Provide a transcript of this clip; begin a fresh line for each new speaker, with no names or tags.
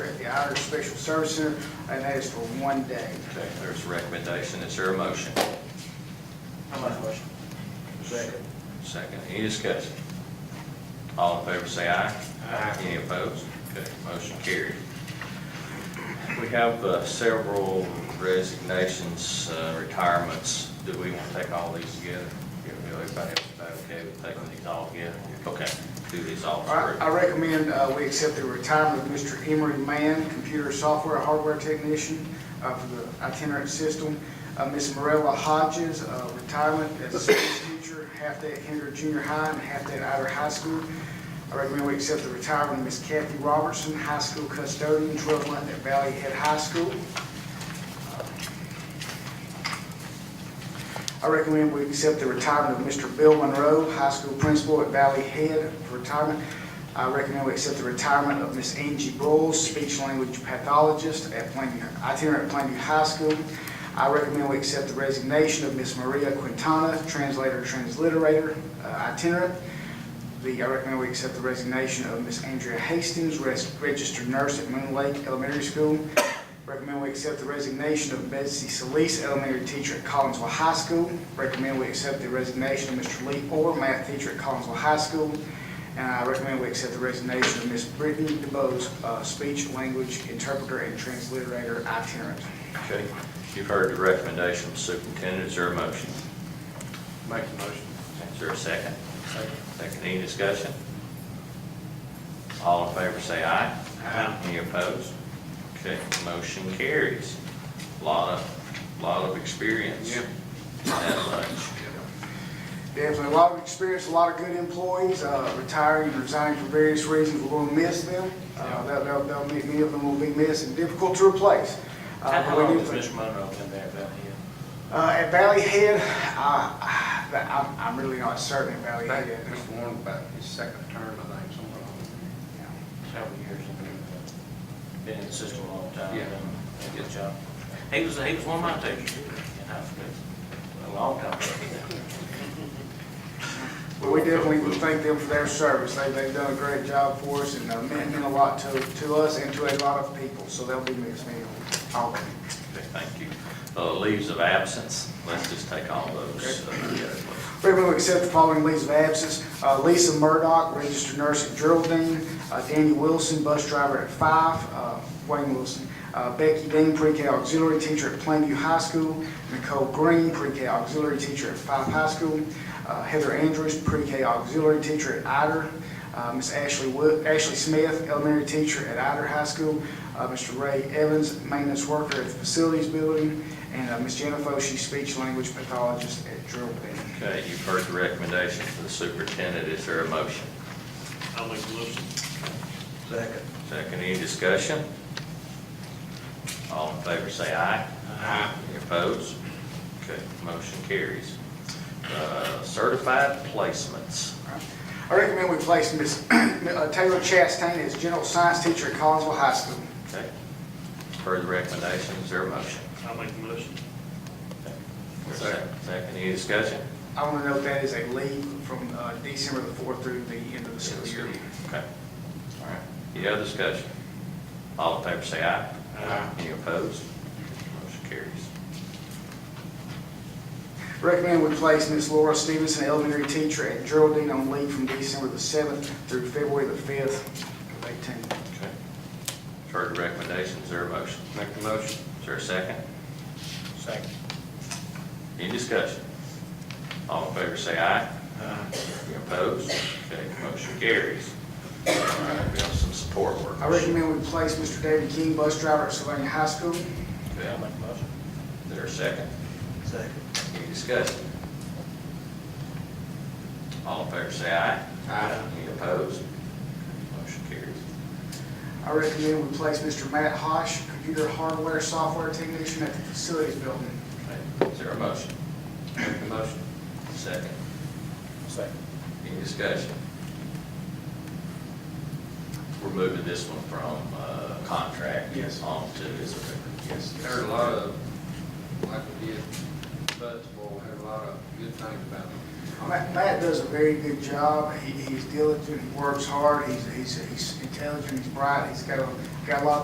Outer Special Service Center, and that is for one day.
Okay, there's a recommendation, is there a motion?
How much motion? Second.
Second, any discussion? All in favor say aye.
Aye.
Any opposed? Okay, motion carried. We have uh, several resignations, uh, retirements. Do we want to take all these together? Yeah, Everybody, everybody okay with taking these all together? Okay, do these all
All right, I
through.
recommend uh, we accept the retirement of Mr. Emery Mann, computer software hardware technician uh, for the itinerant system. Uh, Ms. Morella Hodges, uh, retirement as a science teacher, half day at Henry Junior High and half day at Ider High School. I recommend we accept the retirement of Ms. Kathy Robertson, high school custodian, 12 month at Valley Head High School. I recommend we accept the retirement of Mr. Bill Monroe, high school principal at Valley Head for retirement. I recommend we accept the retirement of Miss Angie Broles, speech language pathologist at Plainview, itinerant at Plainview High School. I recommend we accept the resignation of Miss Maria Quintana, translator, transliterator, uh, itinerant. The, I recommend we accept the resignation of Miss Andrea Hastings, res- registered nurse at Moon Lake Elementary School. Recommend we accept the resignation of Betsy Solis, elementary teacher at Collinsville High School. Recommend we accept the resignation of Mr. Lee Orr, math teacher at Collinsville High School. And I recommend we accept the resignation of Miss Brittany DeBose, uh, speech, language interpreter and transliterator itinerant.
Okay, you've heard the recommendation, superintendent, is there a motion?
Make the motion.
Is there a second?
Second.
Second, any discussion? All in favor say aye.
Aye.
Any opposed? Okay, motion carries. Lot of, lot of experience.
Yep.
That much.
Definitely a lot of experience, a lot of good employees, uh, retiring, resigning for various reasons, we're gonna miss them. Uh, They'll, they'll, they'll be- many of them will be missed and difficult to replace. Uh,
How
but we
long
do
has
think-
Mr. Monroe been there about here?
Uh, at Valley Head, uh, I'm, I'm really not certain at Valley
Back
Head.
at Mr. Warren, about his second term, I think, somewhere along there.
Several years. and Been in the system a long time.
Yeah.
done a Good job. He was, he was one of my teachers in high school. A long time.
But we definitely would thank them for their service. They, they've done a great job for us and uh, meant meant a lot to, to us and to a lot of people, so they'll be missed, man. All of them.
Okay, thank you. Uh, leaves of absence, let's just take all those uh, together, please.
Recommend we accept the following leaves of absence. Uh, Lisa Murdock, registered nurse at Geraldine. Uh, Danny Wilson, bus driver at Five, uh, Wayne Wilson. Uh, Becky Dean, pre-K auxiliary teacher at Plainview High School. Nicole Green, pre-K auxiliary teacher at Five High School. Uh, Heather Andrews, pre-K auxiliary teacher at Ider. Uh, Ms. Ashley Wo- Ashley Smith, elementary teacher at Ider High School. Uh, Mr. Ray Evans, maintenance worker at the facilities building. And uh, Ms. Jennifer, she's speech language pathologist at Geraldine.
Okay, you've heard the recommendation for the superintendent, is there a motion?
I'll make the motion. Second.
Second, any discussion? All in favor, say aye.
Aye.
Any opposed? Okay, motion carries. Uh, Certified placements.
I recommend we place Ms. Taylor Chastain as general science teacher at Collinsville High School.
Okay. Heard the recommendation, is there a motion?
I'll make the motion.
Second. Second, any discussion?
I want to note that is a leave from uh, December the 4th through the end of the school year.
Okay. All right. Any other discussion? All in favor, say aye.
Aye.
Any opposed? Motion carries.
Recommend we place Ms. Laura Stevenson, elementary teacher at Geraldine, on leave from December the 7th through February the 5th of 18.
Okay. Heard the recommendation, is there a motion?
Make the motion.
Is there a second?
Second.
Any discussion? All in favor, say aye. Any opposed? Okay, motion carries. All right, we have some support workers.
I recommend we place Mr. David King, bus driver at Sylvania High School.
Okay,
I'll make the motion.
Is there a second?
Second.
Any discussion? All in favor, say aye.
Aye.
Any opposed? Motion carries.
I recommend we place Mr. Matt Hosh, computer hardware software technician at the facilities building.
Okay, Is there a motion?
Make the motion.
Second.
Second.
Any discussion? We're moving this one from uh, contract.
Yes.
On to, is it?
Yes. Heard a lot of, like we did, Buttsville, heard a lot of good things about
Ma-
them.
Matt does a very good job. He, he's diligent, he works hard, he's, he's, he's intelligent, he's bright, he's got a, got a lot of